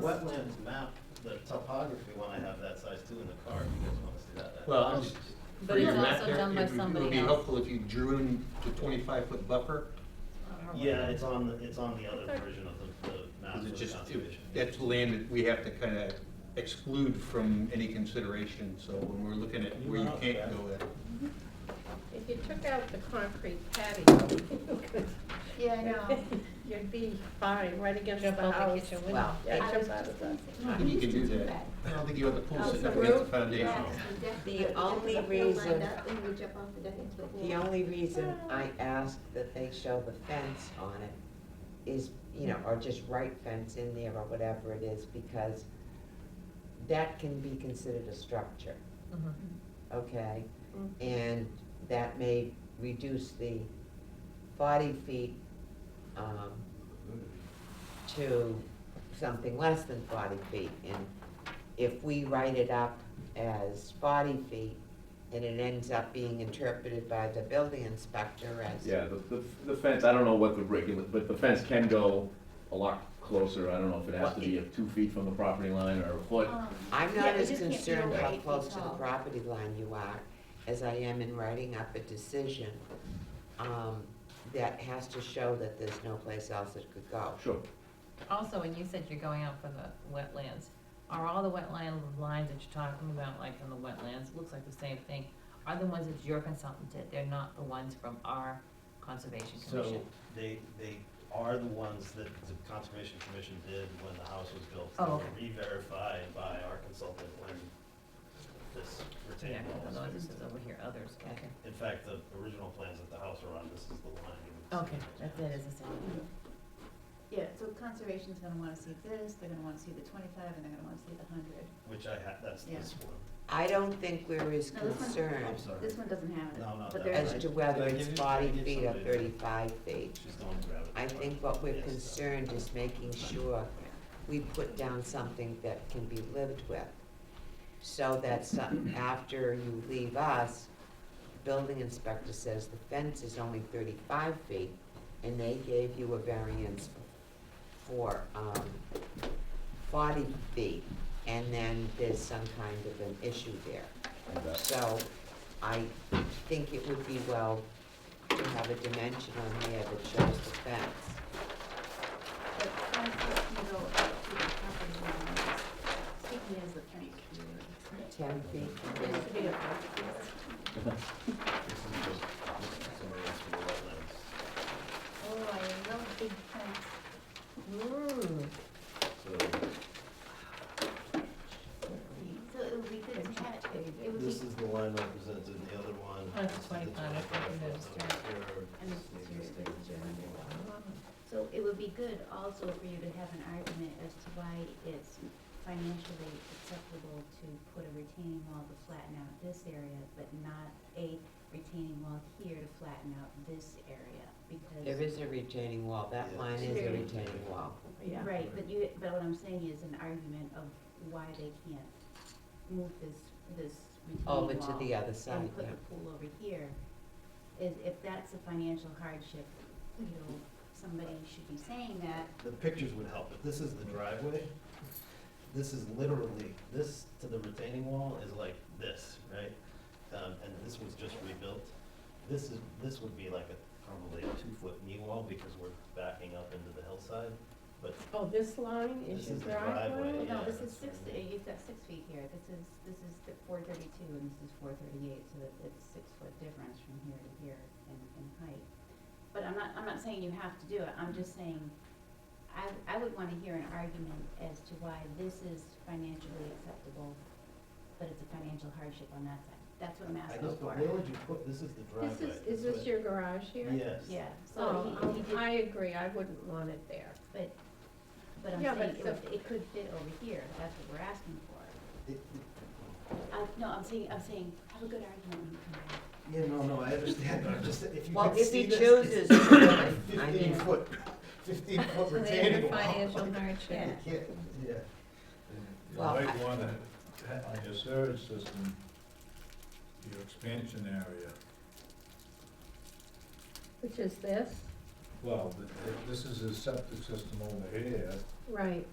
wetlands map, the topography when I have that size too in the car, if you guys wanna see that. that- Well, I'm just. But for it's your map also there, done by it would- It would somebody be else. helpful if you drew in the twenty-five foot buffer, Yeah, it's on, the it's on the other version of the, the map because for it the just, conservation. that's land that we have to kind of exclude from any consideration, so when we're looking at where you Well, can't yeah. go at. If you took out the concrete patio, you could- Yeah, I know. you'd be fine, right against Jump the out the house. kitchen Well, window. yeah, I jump was out of just the- I thinking, think we you can used to do that. I don't think you have the pool Oh, Out sitting the up against the roof? foundation. Yes, we definitely The would. If only the pool lined reason- up, we would jump off the deck into the pool. The only reason I ask that they show the fence on it is, you know, or just write fence in there or whatever it is, because that can be considered a structure, okay? Mm. Mm-hmm. And that may reduce the forty feet, um, to something less than forty feet. And if we write it up as forty feet, and it ends up being interpreted by the building inspector as. Yeah, the, the, the fence, I don't know what the regular, but the fence can go a lot closer, I don't know if it has to be two feet from the property line or a foot. Um, I'm yeah, not it as just can't be concerned over how eight feet close to the tall. property line you are as I am in writing up a decision, um, that has to show that there's no place else it could go. Sure, Also, when you said you're going out for the wetlands, are all the wetland lines that you're talking about, like from the wetlands, looks like the same thing, are the ones that your consultant did, they're not the ones from our conservation So commission? they, they are the ones that the Conservation Commission did when the house was built. Oh, They were okay. Re-verified by our consultant when this Yeah, retained I wall know, was this fixed. is over here, others, okay. In fact, the original plans that the house were on, this is the line. you would see. Okay, that's it, is the same. Yeah, so conservation's gonna wanna see this, they're gonna wanna see the twenty-five, and they're gonna wanna see the hundred. Which I have, that's Yeah. this one. I don't think we're as No, this one- concerned I'm sorry. This one doesn't have it, No, no, but that there's, as one. to Did whether I it's give you- forty did I give fees or somebody- thirty-five feet. She's going to grab it. I think what we're Yes. concerned is making sure we put down something that can be lived with. So that some, after you leave us, building inspector says the fence is only thirty-five feet, and they gave you a variance for, um, forty feet, and then there's some kind of an issue there. like that. So I think it would be well to have a dimension on there that shows the fence. but five feet can go up to the property line. Speaking as the Frank here. Ten feet. There's a bit of a- This is just somebody else for the wetlands. Oh, I love big plants. Ooh, So it would be good to have, it It So would this be, is the line represented, and the other one. Oh, That's is the 25, I think 25, it is, so yeah. here, And this it's is the here, it's state. so it would be good also for you to have an argument as to why it's financially acceptable to put a retaining wall to flatten out this area, but not a retaining wall here to flatten out this area, because. There is a retaining wall, that Yeah. line is a There- retaining wall. Yeah. Right, but you, but what I'm saying is an argument of why they can't move this, this retaining wall. Over to the other side, And put yeah. the pool over here, is if that's a financial hardship, you know, somebody should be saying that, The pictures would help, if this is the driveway, this is literally, this to the retaining wall is like this, right? Um, and this was just rebuilt, this is, this would be like a, probably a two-foot knee wall, because we're backing up into the hillside, but Oh, this line is This your is the driveway. driveway? well, no, yeah, this that's is six, right. you've got six feet here, this is, this is four thirty-two and this is four thirty-eight, so that it's six foot difference from here to here in, in height. But I'm not, I'm not saying you have to do it, I'm just saying, I, I would wanna hear an argument as to why this is financially acceptable, but it's a financial hardship on that side, that's what I'm I asking guess, for. but where would you put, this is the This driveway. is, is this your garage here? Yes. Yeah, so Oh, he, he I did, agree, I wouldn't want it there. but, but I'm Yeah, but saying it, the- would- it could fit over here, that's what we're asking for. It- it- I, no, I'm saying, I'm saying, have a good argument when you come back. Yeah, no, no, I understand, I'm just, if you Well, could if see he this, chooses it's to do it, I Fifteen mean, foot, fifteen foot So they have retaining a wall. financial hardship. Yeah, yeah. You Well, might I- wanna, ha- uh, on your sewage system, your expansion area, Which is this? well, th- th- this is a septic system over here, Right,